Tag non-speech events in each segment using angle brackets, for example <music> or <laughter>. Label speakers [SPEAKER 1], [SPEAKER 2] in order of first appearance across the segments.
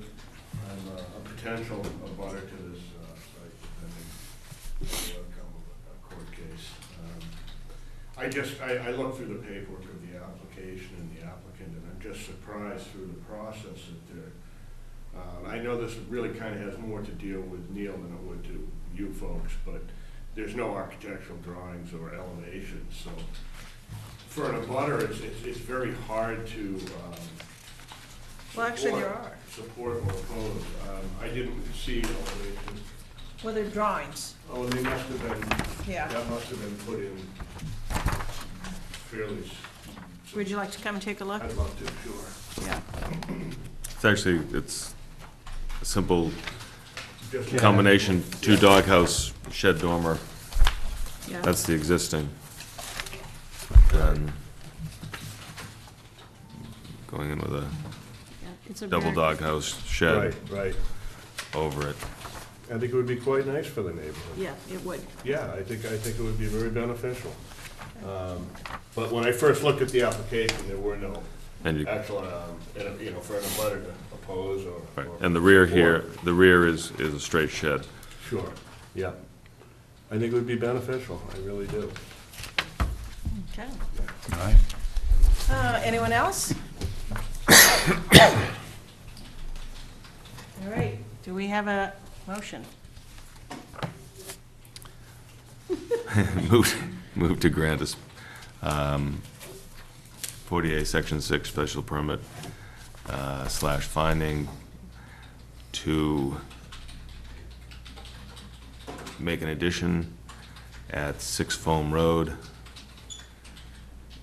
[SPEAKER 1] uh, potential abutter to this uh, site, depending on the outcome of a court case. Um, I just, I, I looked through the paperwork of the application and the applicant, and I'm just surprised through the process that they're uh, I know this really kind of has more to deal with Neil than it would to you folks, but there's no architectural drawings or elevations, so for an abutter, it's, it's, it's very hard to, um.
[SPEAKER 2] Well, actually,
[SPEAKER 1] support-
[SPEAKER 2] there are.
[SPEAKER 1] Support or oppose. Um, I didn't see elevations.
[SPEAKER 2] Well, they're drawings,
[SPEAKER 1] Oh, they must have been,
[SPEAKER 2] yeah.
[SPEAKER 1] that must have been put in fairly. s-
[SPEAKER 2] Would you like to come take a look?
[SPEAKER 1] I'd love to, sure.
[SPEAKER 2] Yeah.
[SPEAKER 3] It's actually, it's a simple
[SPEAKER 1] Just-
[SPEAKER 3] combination, two doghouse, shed dormer,
[SPEAKER 2] Yeah.
[SPEAKER 3] that's the existing. And Going in with a
[SPEAKER 2] It's a
[SPEAKER 3] double
[SPEAKER 2] very-
[SPEAKER 3] doghouse
[SPEAKER 4] Right,
[SPEAKER 3] shed
[SPEAKER 4] right.
[SPEAKER 3] over it.
[SPEAKER 4] I think it would be quite nice for the neighborhood.
[SPEAKER 2] Yeah, it would.
[SPEAKER 4] Yeah, I think, I think it would be very beneficial. Um, But when I first looked at the application, there were no
[SPEAKER 3] And you,
[SPEAKER 4] actual, um, and, you know, for an abutter to oppose or.
[SPEAKER 3] right,
[SPEAKER 4] or-
[SPEAKER 3] and the rear here,
[SPEAKER 4] or-
[SPEAKER 3] the rear is, is a straight shed. <laughs>
[SPEAKER 4] Sure, yeah. I think it would be beneficial, I really do.
[SPEAKER 2] Okay.
[SPEAKER 5] All right.
[SPEAKER 2] Uh, Anyone else? <coughs> All right, do we have a motion?
[SPEAKER 3] Move, move to grant us, um, 48, Section 6 special permit uh, slash finding to make an addition at 6 Foam Road,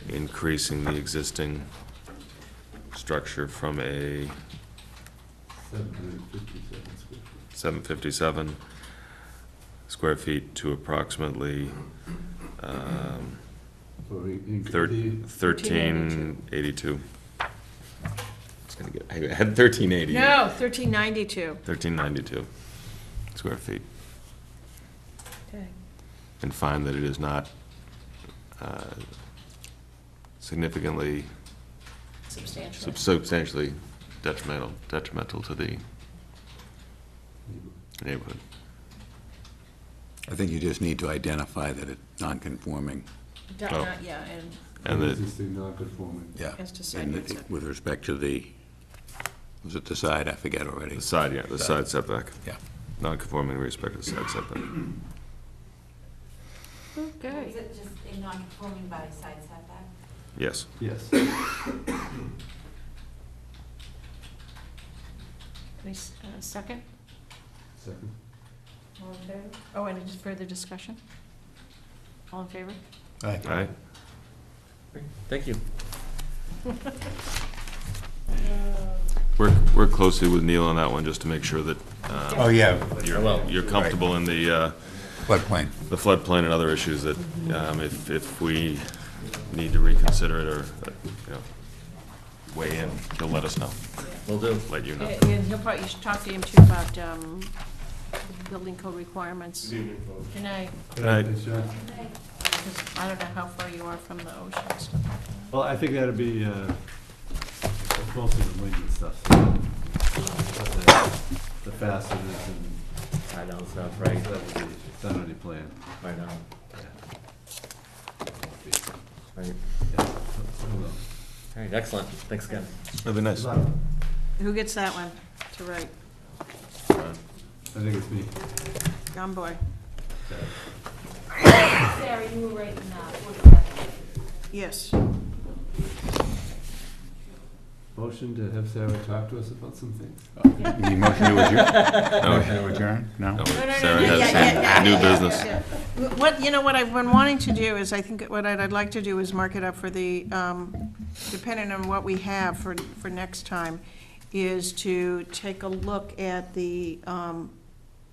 [SPEAKER 3] increasing the existing structure from a 757 square feet to approximately um, Thir- 1382. It's gonna get, I had 1380.
[SPEAKER 2] 1392.
[SPEAKER 3] 1392 square feet,
[SPEAKER 2] Okay.
[SPEAKER 3] and find that it is not uh, significantly,
[SPEAKER 2] Substantial.
[SPEAKER 3] sub- substantially detrimental, detrimental to the neighborhood.
[SPEAKER 5] I think you just need to identify that it's non-conforming,
[SPEAKER 2] Not-
[SPEAKER 3] Oh.
[SPEAKER 2] not- Yeah, and
[SPEAKER 3] And that,
[SPEAKER 6] Existing non-conforming.
[SPEAKER 5] yeah.
[SPEAKER 2] As to side
[SPEAKER 5] And
[SPEAKER 2] yard
[SPEAKER 5] it-
[SPEAKER 2] setback.
[SPEAKER 5] With respect to the, was it the side? I forget already.
[SPEAKER 3] the side, yeah, the side setback,
[SPEAKER 5] Yeah.
[SPEAKER 3] non-conforming in respect to side setback.
[SPEAKER 2] Okay.
[SPEAKER 7] Is it just a non-conforming by side setback?
[SPEAKER 3] Yes.
[SPEAKER 6] Yes.
[SPEAKER 2] Any s- uh, Second?
[SPEAKER 6] Second.
[SPEAKER 2] All in favor? Oh, and any further discussion? All in favor?
[SPEAKER 3] All right.
[SPEAKER 8] Thank you.
[SPEAKER 3] Work, work closely with Neil on that one, just to make sure that uh,
[SPEAKER 5] Oh, yeah,
[SPEAKER 3] you're, you're comfortable in the, uh,
[SPEAKER 5] floodplain.
[SPEAKER 3] the floodplain and other issues that, um, if, if we need to reconsider it or, uh, you know, weigh in, he'll let us know,
[SPEAKER 8] Will do.
[SPEAKER 3] let you know.
[SPEAKER 2] And and he'll probably, you should talk to him too about um, building code requirements.
[SPEAKER 1] Good evening, folks.
[SPEAKER 2] Good night.
[SPEAKER 6] Thanks, John.
[SPEAKER 2] Because I don't know how far you are from the ocean and stuff like that.
[SPEAKER 6] Well, I think that'd be, uh, mostly the wind and stuff. so, uh, The fasteners and,
[SPEAKER 8] I know, it's not right,
[SPEAKER 6] that would be done on your plan.
[SPEAKER 8] I know. Right.
[SPEAKER 6] Yeah, so- so, uh,
[SPEAKER 8] All right, excellent. Thanks again.
[SPEAKER 3] That'd be nice.
[SPEAKER 2] Who gets that one to write?
[SPEAKER 6] I think it's me.
[SPEAKER 2] Young boy.
[SPEAKER 7] Sarah, you were right in that, forty-seven.
[SPEAKER 2] Yes.
[SPEAKER 6] Motion to have Sarah talk to us about some things.
[SPEAKER 5] You motion to adjourn? Motion to adjourn? No?
[SPEAKER 2] No,
[SPEAKER 3] No,
[SPEAKER 2] no, no,
[SPEAKER 3] Sarah
[SPEAKER 2] yeah,
[SPEAKER 3] has
[SPEAKER 2] yeah, yeah,
[SPEAKER 3] some new
[SPEAKER 2] yeah, yeah,
[SPEAKER 3] business.
[SPEAKER 2] yeah. What, you know, what I've been wanting to do is, I think what I'd, I'd like to do is mark it up for the, um, depending on what we have for, for next time, is to take a look at the um,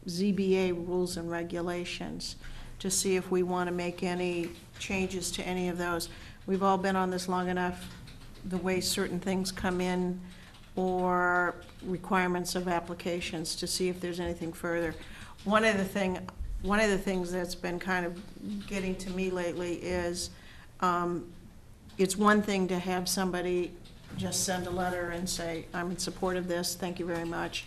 [SPEAKER 2] ZBA rules and regulations to see if we want to make any changes to any of those. We've all been on this long enough, the way certain things come in or requirements of applications to see if there's anything further. One of the thing, one of the things that's been kind of getting to me lately is, um, it's one thing to have somebody just send a letter and say, I'm in support of this, thank you very much.